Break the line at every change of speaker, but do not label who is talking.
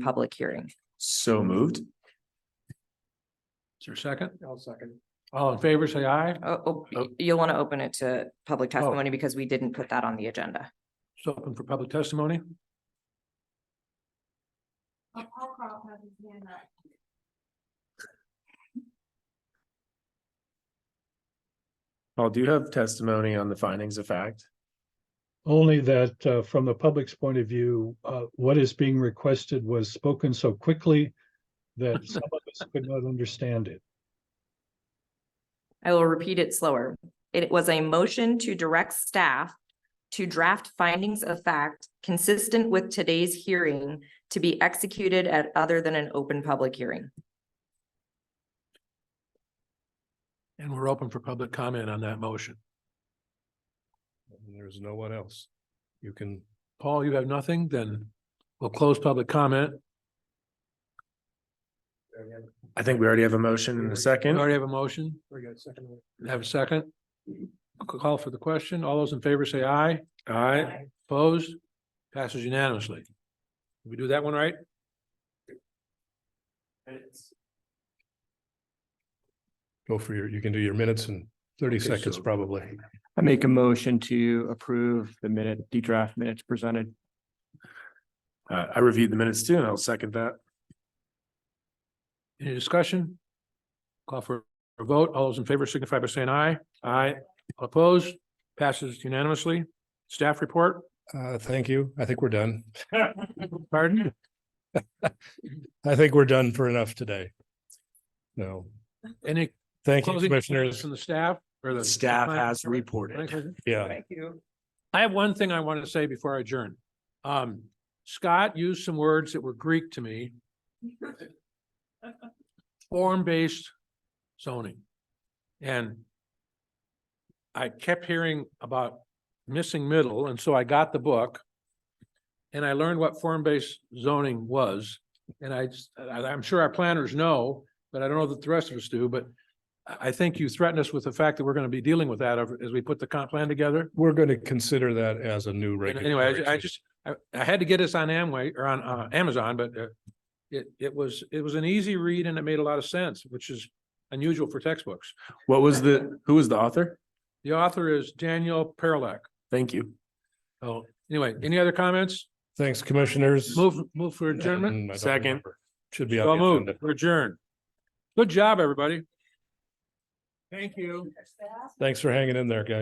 public hearing.
So moved.
Is there a second?
I'll second.
All in favor, say aye.
Oh, oh,
Oh.
you'll want to open it to public testimony because we didn't put that on the agenda.
It's open for public testimony.
Paul Carl has his hand up.
Paul, do you have testimony on the findings of fact?
Only that, uh, from the public's point of view, uh, what is being requested was spoken so quickly that some of us could not understand it.
I will repeat it slower. It was a motion to direct staff to draft findings of fact consistent with today's hearing to be executed at other than an open public hearing.
And we're open for public comment on that motion.
There's no one else. You can,
Paul, you have nothing? Then we'll close public comment.
I think we already have a motion in a
We
second.
already have a motion.
we got a second. one.
Have a second. Call for the question. All those in favor, say aye. Aye. Opposed? Passes unanimously. Did We do that one right?
Go for your, you can do your minutes in thirty
Okay,
seconds
so-
probably.
I make a motion to approve the minute, the draft minutes presented.
Uh, I reviewed the minutes too, and I'll second that.
Any discussion? Call for a vote. All those in favor signify by saying aye. Aye. Opposed? Passes unanimously. Staff report?
Uh, thank you. I think we're done.
Pardon?
I think we're done for enough today. No,
Any
thank you,
closing comments
commissioners.
from the staff or the?
Staff has reported.
Yeah,
Thank you.
I have one thing I want to say before I adjourn. Um, Scott used some words that were Greek to me. Form-based zoning. And I kept hearing about missing middle, and so I got the book. And I learned what form-based zoning was, and I, just- I- I'm sure our planners know, but I don't know that the rest of us do, but I, I think you threatened us with the fact that we're going to be dealing with that as we put the comp plan together.
we're going to consider that as a new
And
regulation.
Anyway, I ju- I just, I, I had to get this on Amway or on, uh, Amazon, but, uh, it, it was, it was an easy read and it made a lot of sense, which is unusual for textbooks.
What was the, who was the author?
The author is Daniel Perlak.
Thank you.
Oh, anyway, any other comments?
Thanks, commissioners.
Move, move for
And
adjournment?
mm, I don't
Second.
remember. Should be
So
on the
moved,
agenda.
We're adjourned. Good job, everybody. Thank you.
Thanks for hanging in there, guys.